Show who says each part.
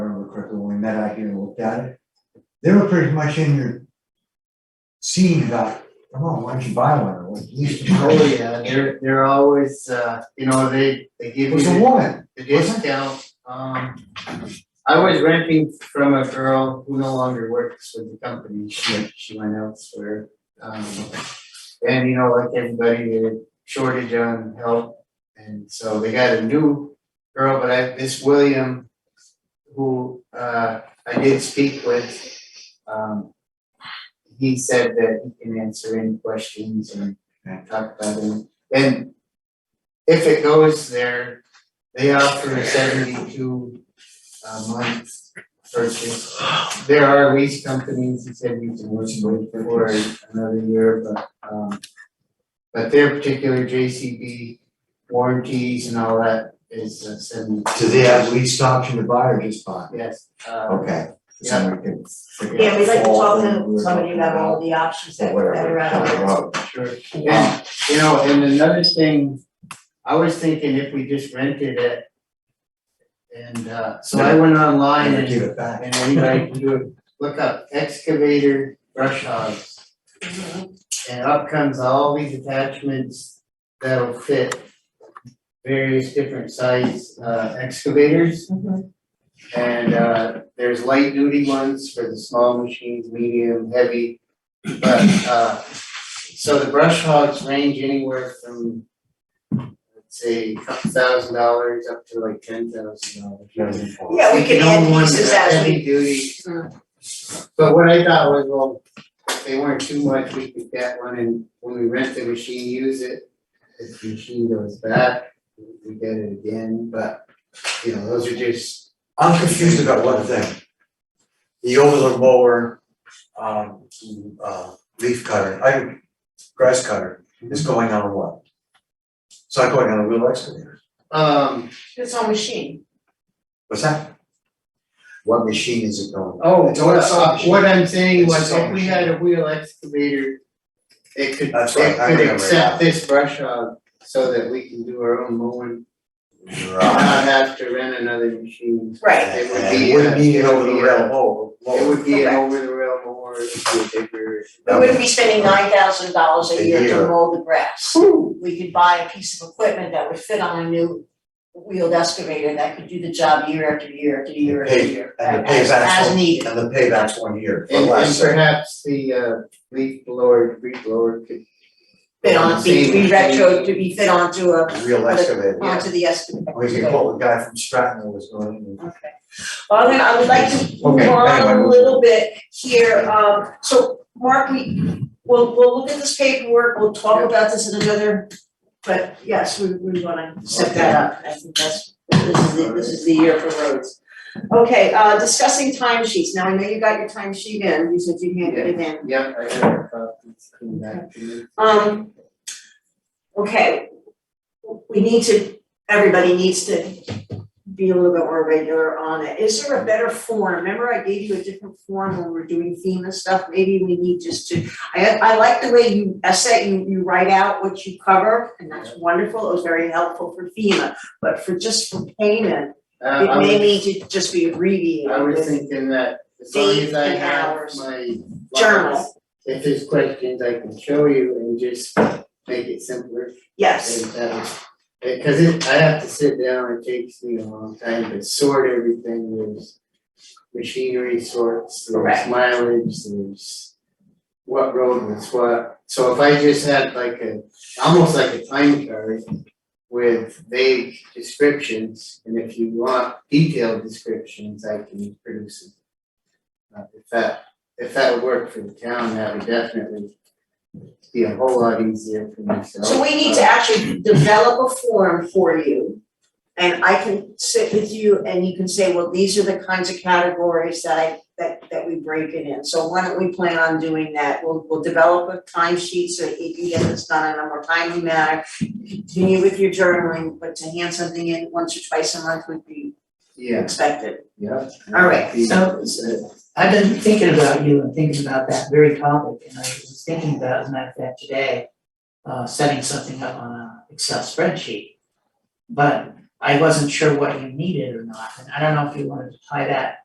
Speaker 1: met out here and looked at it, they were pretty much in your scene about, come on, why don't you buy one, or at least.
Speaker 2: Oh, yeah, they're, they're always, uh, you know, they, they
Speaker 1: It
Speaker 2: give
Speaker 1: was
Speaker 2: you
Speaker 1: a
Speaker 2: the-
Speaker 1: woman,
Speaker 2: the discount, um. I was renting from a girl who no longer works with the company, she, she went elsewhere, um. And you know, like everybody, a shortage on help, and so they got a new girl, but I, this William. Who, uh, I did speak with, um. He said that he can answer any questions and talk about it, and. If it goes there, they offer a seventy-two uh month purchase. There are lease companies that said you can work with for another year, but um but their particular JCB warranties and all that is uh, seventy-two.
Speaker 1: do they have least option to buy or just buy?
Speaker 2: Yes, uh
Speaker 1: Okay.
Speaker 2: Yeah.
Speaker 1: Someone could figure out
Speaker 3: Yeah, we'd like to talk
Speaker 1: all we
Speaker 3: to
Speaker 1: were
Speaker 3: somebody
Speaker 1: talking
Speaker 3: about all the options that
Speaker 1: Whatever,
Speaker 3: that are out
Speaker 1: down the
Speaker 3: there.
Speaker 1: road.
Speaker 2: sure. And you know, and another thing, I was thinking if we just rented it and uh so I went online
Speaker 1: Never
Speaker 2: and
Speaker 1: give it back.
Speaker 2: And anybody can do it, look up excavator brush hogs,
Speaker 3: Mhm.
Speaker 2: and up comes all these attachments that'll fit various different size uh excavators,
Speaker 1: Mm-hmm.
Speaker 3: Mhm.
Speaker 2: and uh there's light duty ones for the small machines, medium, heavy. But uh, so the brush hogs range anywhere from, let's say, a couple thousand dollars up to like ten thousand dollars.
Speaker 3: Yeah, we can add
Speaker 2: own one
Speaker 3: pieces
Speaker 2: that's
Speaker 3: as we,
Speaker 2: Heavy duty. But what I thought was, well, if they weren't too much, we could get one and when we rent the machine, use it. If the machine goes back, we get it again, but you know, those are just,
Speaker 1: I'm confused about one thing. The overland mower, um, uh, leaf cutter, I, grass cutter is
Speaker 2: Mm-hmm.
Speaker 1: going on what? It's not going on a real excavator.
Speaker 2: um,
Speaker 3: it's on machine.
Speaker 1: What's that? What machine is it going? on?
Speaker 2: oh,
Speaker 1: It's all it's
Speaker 2: what
Speaker 1: option.
Speaker 2: what I'm saying
Speaker 1: It's
Speaker 2: was
Speaker 1: all
Speaker 2: if we had a wheel excavator, it could,
Speaker 1: That's right,
Speaker 2: it
Speaker 1: I
Speaker 2: could
Speaker 1: remember that.
Speaker 2: accept this brush hog so that we can do our own mowing,
Speaker 1: Right.
Speaker 2: not have to rent another machine.
Speaker 3: Right,
Speaker 2: It would
Speaker 1: And
Speaker 2: be.
Speaker 1: you wouldn't
Speaker 2: a-
Speaker 1: need it
Speaker 2: would
Speaker 1: over the
Speaker 2: be a-
Speaker 1: rail mower.
Speaker 2: It would be an
Speaker 3: Correct.
Speaker 2: over the rail mower, it would be a bigger.
Speaker 3: we wouldn't be spending nine thousand dollars a
Speaker 1: A
Speaker 3: year to
Speaker 1: year.
Speaker 3: mow the grass. We could buy a piece of equipment that would fit on a new wheeled excavator that could do the job year after year after year after
Speaker 1: Pay-
Speaker 3: year.
Speaker 1: and the
Speaker 3: as-
Speaker 1: payback's
Speaker 3: As
Speaker 1: one-
Speaker 3: needed.
Speaker 1: And the payback's one year or
Speaker 2: And and
Speaker 1: less.
Speaker 2: perhaps the uh leaf blower, leaf blower could.
Speaker 3: Fit on, be, be retro, to be fit onto a,
Speaker 1: Real excavator.
Speaker 3: onto the excavator.
Speaker 1: We could call the guy from Stratton that was going. in.
Speaker 3: Okay. Well, then I would like to move
Speaker 1: Okay,
Speaker 3: on
Speaker 1: anyway,
Speaker 3: a
Speaker 1: we'll-
Speaker 3: little bit here, um, so Mark, we, we'll, we'll look at this paperwork, we'll talk
Speaker 2: Yeah.
Speaker 3: about this in another, but yes, we, we wanna set that up, I think that's, this is the, this is the year for roads. Okay, uh, discussing timesheets, now I know you got your timesheet in, you said you handed it in.
Speaker 2: Yep, I have a copy, it's coming back to me.
Speaker 3: Um, okay, we need to, everybody needs to be a little bit more regular on it. Is there a better form? Remember I gave you a different form when we we're doing FEMA stuff? Maybe we need just to, I, I like the way you essay, you, you write out what you cover, and that's wonderful. It was very helpful for FEMA. But for just for payment,
Speaker 2: Uh, I
Speaker 3: it
Speaker 2: was-
Speaker 3: may need to just be abbreviated
Speaker 2: I was
Speaker 3: with
Speaker 2: thinking that as long as I
Speaker 3: Dates and
Speaker 2: have
Speaker 3: hours.
Speaker 2: my lines,
Speaker 3: journal.
Speaker 2: if there's questions, I can show you and just make it simpler
Speaker 3: Yes,
Speaker 2: and better. Uh, Cause it, I have to sit down, it takes me a long time to sort everything, there's machinery sorts, there's
Speaker 3: Correct.
Speaker 2: mileage, there's what road was what, so if I just had like a, almost like a time card with vague descriptions, and if you want detailed descriptions, I can produce it. Uh, if that, if that would work for the town, that would definitely be a whole lot easier for myself.
Speaker 3: So we need
Speaker 2: Uh,
Speaker 3: to actually develop a form for you. And I can sit with you and you can say, well, these are the kinds of categories that I, that, that we break it in. So why don't we plan on doing that? We'll, we'll develop a timesheet so that you can get this done in a more timely manner. Continue with your journaling, but to hand something in once or twice a month would be
Speaker 2: Yeah,
Speaker 3: expected.
Speaker 2: yeah.
Speaker 3: All right,
Speaker 4: so- I've been thinking about you and thinking about that very topic, and I was thinking about, as a matter of fact, today, uh, setting something up on a Excel spreadsheet. But I wasn't sure what you needed or not, and I don't know if you wanted to tie that